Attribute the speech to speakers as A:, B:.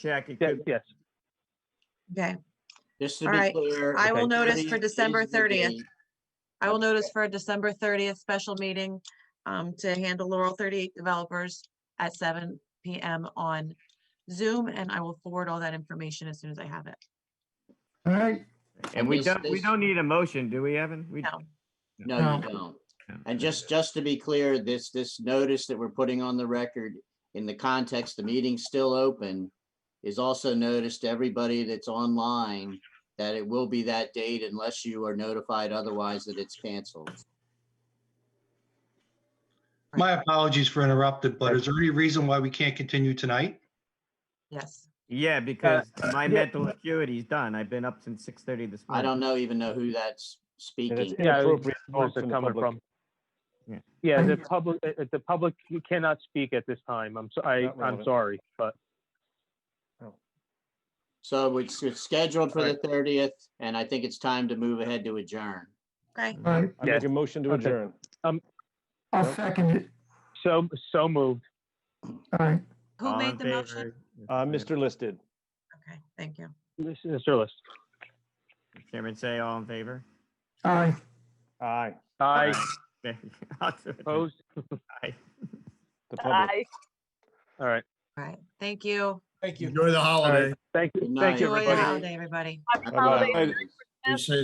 A: check. It
B: Yes,
A: could,
B: yes.
C: Okay,
D: Just to
C: All
D: be
C: right.
D: clear.
C: I
D: if
C: will notice
D: think
C: for
D: it is
C: December
D: the
C: 30th.
D: date,
C: I will notice for a December thirtieth special meeting um, to handle Laurel thirty-eight developers at seven PM on Zoom, and I will forward all that information as soon as I have it.
E: All right,
A: and we
D: this-
A: don't, we
D: this-
A: don't need a motion, do we, Evan? We-
C: No,
D: No,
E: No.
D: you don't.
A: no.
D: And just, just to be clear, this, this notice that we're putting on the record in the context, the meeting's still open, is also noticed to everybody that's online that it will be that date unless you are notified otherwise that it's canceled.
F: My apologies for interrupted, but is there any reason why we can't continue tonight?
C: yes.
A: Yeah, because my
B: yeah.
A: mental acuity is done. I've been up since six thirty this
D: uh, I
A: morning.
D: don't know, even know who that's
G: And it's
D: speaking.
B: Yeah, it's
G: inappropriate
B: Where's it
G: talk from the
B: coming
G: public.
B: from?
A: Yeah.
B: Yeah, the public, uh, uh, the public cannot speak at this time. I'm, so- I,
G: Not
B: I'm
G: relevant.
B: sorry, but
D: So it's, it's scheduled for the thirtieth, and I think it's time to move ahead to adjourn.
C: Okay,
E: all right.
G: I
B: Yes.
G: make a motion to
B: Okay.
G: adjourn.
E: I'll
G: Yep.
E: second it.
B: so, so moved.
E: All right.
C: who
A: All in
C: made the motion?
A: favor?
G: Uh, Mr. Listed.
C: Okay, thank you.
B: Mr. List.
A: Chairman say all in favor?
E: Aye.
G: Aye.
B: I Oh,
A: Okay, I'll do it.
B: oppose.
G: The public.
B: All right.
C: All right, thank you.
H: Thank you.
I: Enjoy the
B: All
I: holiday.
B: right. Thank
D: Good
B: you,
D: night.
B: thank you,
C: Enjoy your
B: everybody.
C: holiday, everybody.
G: Bye-bye.
I: Be safe.